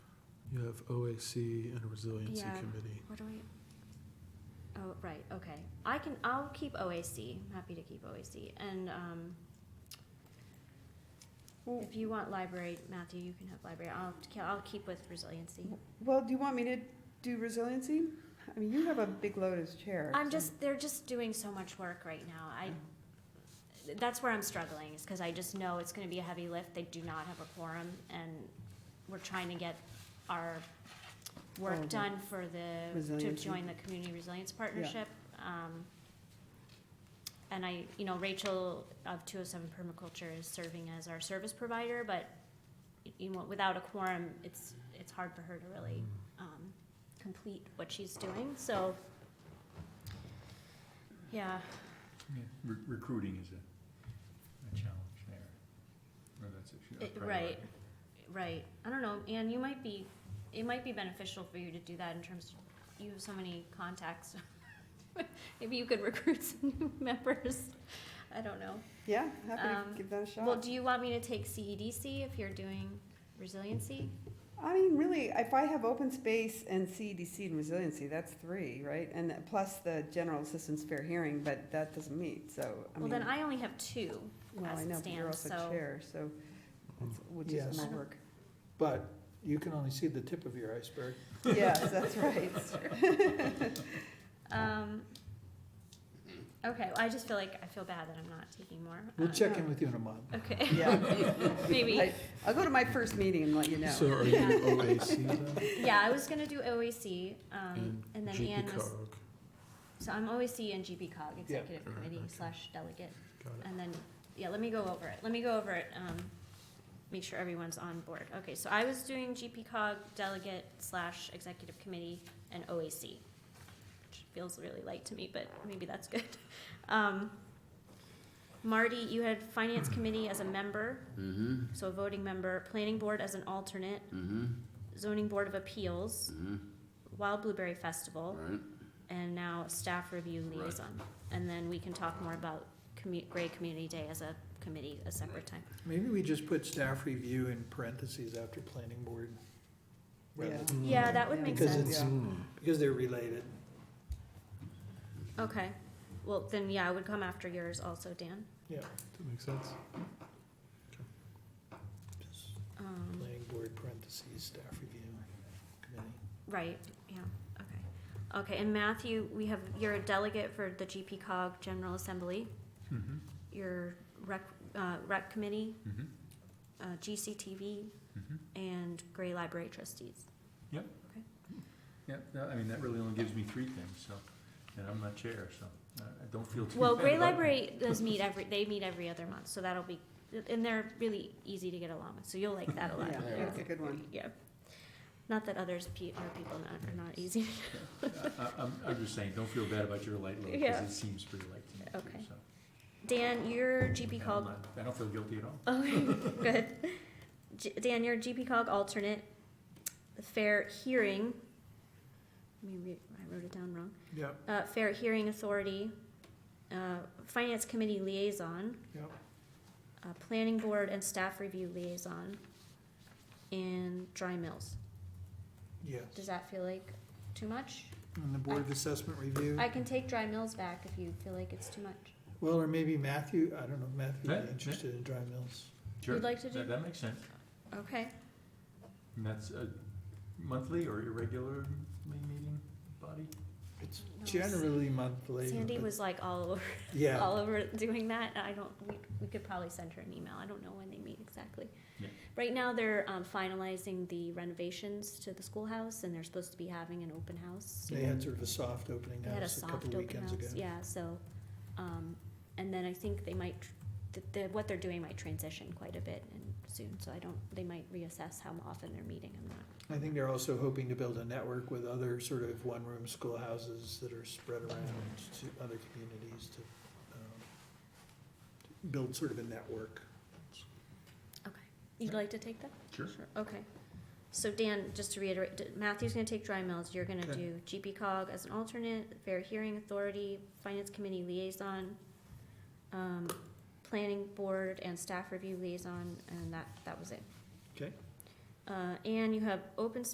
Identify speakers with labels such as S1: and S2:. S1: You have OAC and a Resiliency
S2: Yeah.
S1: Committee.
S2: What do we? Oh, right, okay. I can, I'll keep OAC, I'm happy to keep OAC, and, um,
S3: Well,
S2: if you want library, Matthew, you can have library, I'll, I'll keep with resiliency.
S3: well, do you want me to do resiliency? I mean, you have a big load as chair.
S2: I'm
S3: so-
S2: just, they're just doing so much work right now, I, that's where I'm struggling, is because I just know it's gonna be a heavy lift, they do not have a quorum, and we're trying to get our
S3: All
S2: work
S3: the
S2: done for the, to
S3: resiliency.
S2: join the Community Resilience Partnership. Um, And I, you know, Rachel of two oh seven Permaculture is serving as our service provider, but y- you know, without a quorum, it's, it's hard for her to really, um, complete what she's doing, so. Yeah,
S4: Yeah, re- Recruiting is a, a challenge there. Or that's a- a
S2: It- right.
S4: priority.
S2: right, I don't know, Anne, you might be, it might be beneficial for you to do that in terms, of you have so many contacts. Maybe you could recruit some new members, I don't know.
S3: Yeah, happy
S2: Um,
S3: to give that a
S2: Well,
S3: shot.
S2: do you want me to take CEDC if you're doing resiliency?
S3: I mean, really, if I have open space and CEDC and resiliency, that's three, right? And plus the general assistance fair hearing, but that doesn't meet, so, I
S2: Well,
S3: mean.
S2: then I only have two
S3: Well,
S2: as
S3: I
S2: it
S3: know, but you're
S2: stands,
S3: also
S2: so-
S3: chair, so,
S1: Mm.
S3: that's- which is
S5: Yes.
S3: my work.
S5: But you can only see the tip of your iceberg.
S3: Yes, that's right.
S2: Um, okay, well, I just feel like, I feel bad that I'm not taking more.
S5: We'll
S2: Uh,
S5: check in with you in a month.
S2: Okay,
S3: Yeah.
S2: maybe,
S3: I- I'll go to my first meeting and let you
S1: So
S3: know.
S1: are you OAC then?
S2: yeah, I was gonna do OAC, um,
S1: And
S2: and then Anne
S1: GP
S2: was,
S1: cog.
S2: so I'm OAC and GP cog, executive
S1: Alright,
S2: committee
S1: okay.
S2: slash delegate,
S1: Got it.
S2: and then, yeah, let me go over it, let me go over it, um, make sure everyone's on board. Okay, so I was doing GP cog, delegate slash executive committee, and OAC, which feels really light to me, but maybe that's good. Um, Marty, you had finance committee as a member,
S6: Mm-hmm,
S2: so a voting member, planning board as an alternate,
S6: mm-hmm,
S2: zoning board of appeals,
S6: mm-hmm,
S2: wild blueberry festival,
S6: right,
S2: and now staff review
S6: Right.
S2: liaison. And then we can talk more about commu- Gray Community Day as a committee a separate time.
S5: Maybe we just put staff review in parentheses after planning board. rather
S3: Yeah.
S5: than-
S2: Uh,
S1: Mm.
S2: Yeah, that would make
S5: Because
S2: sense.
S5: it's, because they're related.
S2: Okay, well, then, yeah, I would come after yours also, Dan.
S5: Yeah,
S1: That makes sense.
S5: just
S2: Um,
S5: planning board parentheses, staff review committee.
S2: right, yeah, okay. Okay, and Matthew, we have, you're a delegate for the GP cog General Assembly,
S4: Mhm,
S2: your rec, uh, rec committee,
S4: mhm,
S2: uh, GCTV,
S4: mhm.
S2: and Gray Library trustees.
S4: Yeah, no, I mean, that really only gives me three things, so, and I'm not chair, so I I don't feel too.
S2: Well,
S4: bad
S2: Gray
S4: about it.
S2: Library does meet every, they meet every other month, so that'll be, and they're really easy to get along with, so you'll like that a lot.
S3: Yeah, that's a good one.
S2: Yeah. Not that others, pe- are people not, are not easy.
S4: I, I- I'm, I'm just saying, don't feel bad about your light load, because
S2: Yeah.
S4: it seems pretty light to me
S2: Okay.
S4: too, so.
S2: Dan, your GP
S4: and I'm
S2: cog,
S4: not- I don't feel guilty at all.
S2: okay, good. G- Dan, your GP cog alternate, the fair hearing, let me read, I wrote it down wrong.
S5: Yep,
S2: Uh, fair hearing authority, uh, finance committee liaison,
S5: yep.
S2: uh, planning board and staff review liaison, and dry mills. Does
S5: Yes.
S2: that feel like too much?
S5: And the board of assessment review.
S2: I can take dry mills back if you feel like it's too much.
S5: Well, or maybe Matthew, I don't know, Matthew
S4: Matt, Matt.
S5: would be interested in dry mills.
S4: Sure,
S2: like to
S4: that-
S2: do-
S4: That makes sense.
S2: Okay.
S4: And that's a monthly or irregular meeting body?
S5: It's
S2: No,
S5: generally monthly.
S2: Sandy
S5: but-
S2: was like all over,
S5: Yeah,
S2: all over doing that. I don't, we, we could probably send her an email. I don't know when they meet exactly.
S4: Yeah.
S2: Right now, they're um, finalizing the renovations to the schoolhouse and they're supposed to be having an open house.
S5: they had sort of a soft opening
S2: They had a
S5: house a
S2: soft
S5: couple
S2: open
S5: weekends ago.
S2: house, yeah, so, um, and then I think they might, tr- th- the, what they're doing might transition quite a bit and soon, so I don't, they might reassess how often they're meeting, I'm not,
S5: I think they're also hoping to build a network with other sort of one-room schoolhouses that are spread around to other communities to, um, to build sort of a network.
S2: okay. You'd like to take that?
S4: Sure.
S2: Okay. So Dan, just to reiterate, d- Matthew's gonna take dry mills, you're gonna
S5: Okay.
S2: do GP cog as an alternate, fair hearing authority, finance committee liaison, um, planning board and staff review liaison, and that, that was it.
S5: Okay.
S2: Uh, and you have open